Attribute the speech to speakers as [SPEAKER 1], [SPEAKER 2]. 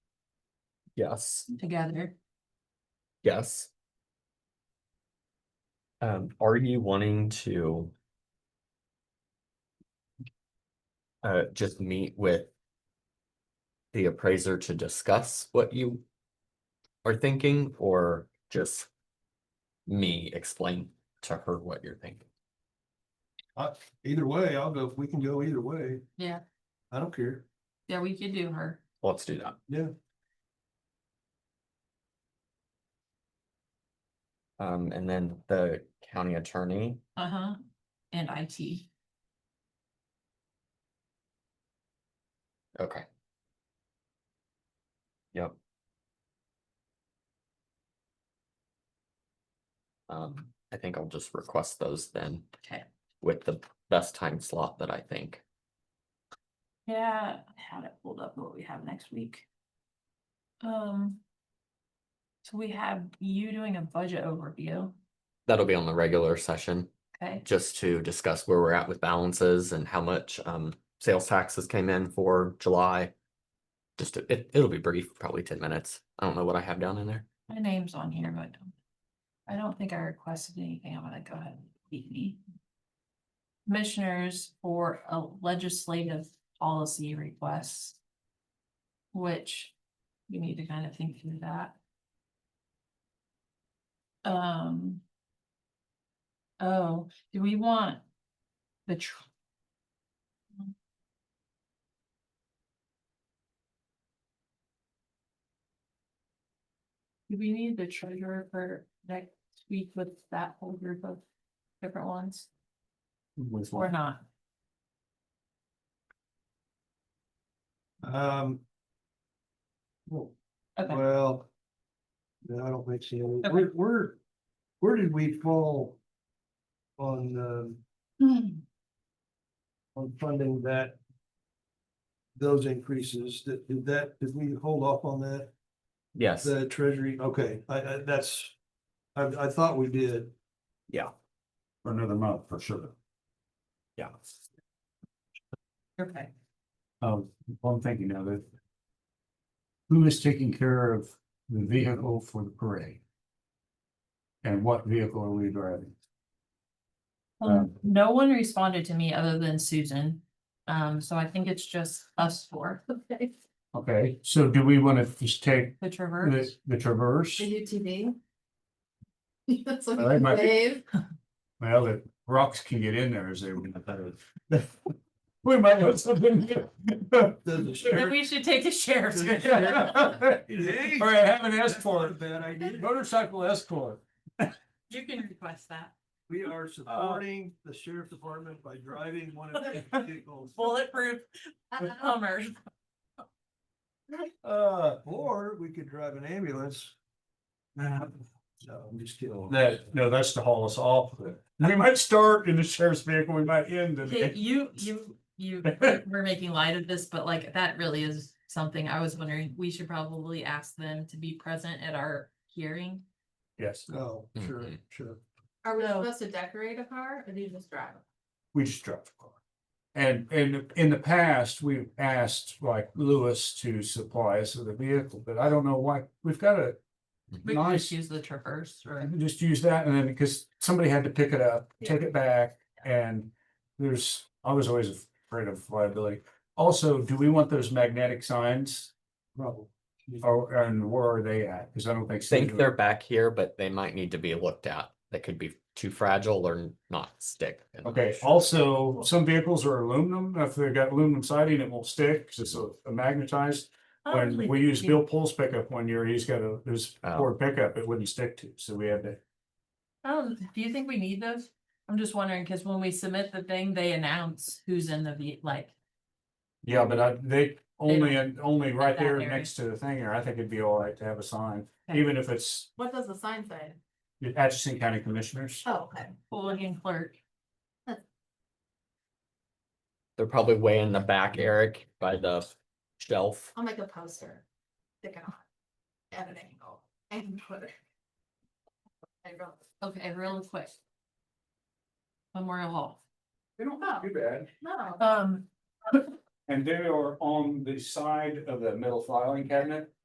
[SPEAKER 1] Yes,
[SPEAKER 2] together.
[SPEAKER 1] yes. Um, are you wanting to? Uh, just meet with. The appraiser to discuss what you. Are thinking or just? Me explain to her what you're thinking.
[SPEAKER 3] I, either way, I'll go, we can go either way.
[SPEAKER 2] Yeah,
[SPEAKER 3] I don't care.
[SPEAKER 2] yeah, we could do her.
[SPEAKER 1] Let's do that.
[SPEAKER 3] Yeah.
[SPEAKER 1] Um, and then the county attorney,
[SPEAKER 2] Uh-huh. And IT.
[SPEAKER 1] okay. Yep. Um, I think I'll just request those then
[SPEAKER 2] Okay.
[SPEAKER 1] with the best time slot that I think.
[SPEAKER 2] Yeah, I had it pulled up what we have next week. Um. So we have you doing a budget overview,
[SPEAKER 1] That'll be on the regular session,
[SPEAKER 2] okay?
[SPEAKER 1] just to discuss where we're at with balances and how much um sales taxes came in for July. Just to- it, it'll be brief, probably ten minutes. I don't know what I have down in there.
[SPEAKER 2] My name's on here, but I don't think I requested anything. I'm gonna go ahead and beat me. Commissioners for a legislative policy requests. Which you need to kind of think through that. Um. Oh, do we want the tr- do we need the treasurer for next week with that whole group of different ones or not?
[SPEAKER 3] Um. well,
[SPEAKER 2] Okay,
[SPEAKER 3] Well. No, I don't think so.
[SPEAKER 2] Okay.
[SPEAKER 3] Where, where, where did we fall? On, um, on funding that? Those increases, that, did that, did we hold off on that?
[SPEAKER 1] Yes.
[SPEAKER 3] The treasury, okay, I, I, that's, I, I thought we did.
[SPEAKER 1] Yeah.
[SPEAKER 3] For another month, for sure.
[SPEAKER 1] Yeah.
[SPEAKER 2] okay.
[SPEAKER 4] Um, well, I'm thinking of it. Who is taking care of the vehicle for the parade? And what vehicle are we driving?
[SPEAKER 2] Um,
[SPEAKER 4] Mm.
[SPEAKER 2] no one responded to me other than Susan, um, so I think it's just us four.
[SPEAKER 4] Okay, so do we want to just take
[SPEAKER 2] The
[SPEAKER 4] the,
[SPEAKER 2] Traverse,
[SPEAKER 4] the Traverse?
[SPEAKER 5] The UTV? That's what
[SPEAKER 4] Well, that
[SPEAKER 5] you
[SPEAKER 4] Oh, might be-
[SPEAKER 5] wave.
[SPEAKER 4] Well, the rocks can get in there as they. We might have something.
[SPEAKER 3] Does the
[SPEAKER 2] Then
[SPEAKER 3] sheriff-
[SPEAKER 2] we should take the sheriff's.
[SPEAKER 3] Hey,
[SPEAKER 4] Or have
[SPEAKER 3] that's
[SPEAKER 4] an
[SPEAKER 3] not a
[SPEAKER 4] escort,
[SPEAKER 3] Bad idea.
[SPEAKER 4] motorcycle escort.
[SPEAKER 2] You can request that.
[SPEAKER 3] We are supporting the sheriff department by driving one of their vehicles.
[SPEAKER 2] Bulletproof Uh-huh. Hummers.
[SPEAKER 3] Uh, or we could drive an ambulance. No, I'm just kidding.
[SPEAKER 4] That, no, that's to haul us off. We might start in the sheriff's vehicle, we might end in.
[SPEAKER 2] Okay, You, you, you, we're making light of this, but like, that really is something I was wondering, we should probably ask them to be present at our hearing.
[SPEAKER 4] Yes,
[SPEAKER 3] Oh, sure,
[SPEAKER 1] Mhm.
[SPEAKER 3] sure.
[SPEAKER 5] Are we
[SPEAKER 2] So-
[SPEAKER 5] supposed to decorate a car or do you just drive? it?
[SPEAKER 4] we just dropped the car. And, and in the past, we've asked like Lewis to supply us with a vehicle, but I don't know why, we've got to
[SPEAKER 2] We can just
[SPEAKER 4] Nice.
[SPEAKER 2] use the Traverse or.
[SPEAKER 4] just use that and then because somebody had to pick it up, take it back. And there's, I was always afraid of liability. Also, do we want those magnetic signs?
[SPEAKER 3] Probably.
[SPEAKER 4] Or, and where are they at? Because I don't think.
[SPEAKER 1] Think they're back here, but they might need to be looked at. They could be too fragile or n- not stick. And
[SPEAKER 4] Okay, also, some vehicles are aluminum, if they've got aluminum siding, it won't stick, because it's a- a magnetized.
[SPEAKER 2] Oh,
[SPEAKER 4] When
[SPEAKER 2] really?
[SPEAKER 4] we used
[SPEAKER 2] Yeah.
[SPEAKER 4] Bill Pool's pickup one year, he's got a, his
[SPEAKER 1] Oh.
[SPEAKER 4] Ford pickup, it wouldn't stick to, so we had to.
[SPEAKER 2] Um, do you think we need those? I'm just wondering, cause when we submit the thing, they announce who's in the, ve- like,
[SPEAKER 4] Yeah, but I, they only, and only right
[SPEAKER 2] that
[SPEAKER 4] there
[SPEAKER 2] area.
[SPEAKER 4] next to the thing, or I think it'd be all right to have a sign,
[SPEAKER 2] Okay.
[SPEAKER 4] even if it's
[SPEAKER 5] What does the sign say?
[SPEAKER 4] the Atchison County Commissioners.
[SPEAKER 5] Oh, okay.
[SPEAKER 2] looking clerk.
[SPEAKER 1] They're probably way in the back, Eric, by the shelf.
[SPEAKER 5] I'll make a poster. Stick it on. At an angle and put it. I wrote,
[SPEAKER 2] Okay, real quick. Memorial Hall.
[SPEAKER 4] They don't
[SPEAKER 5] look too
[SPEAKER 4] bad,
[SPEAKER 5] no,
[SPEAKER 2] Um,
[SPEAKER 4] and they are on the side of the metal filing cabinet.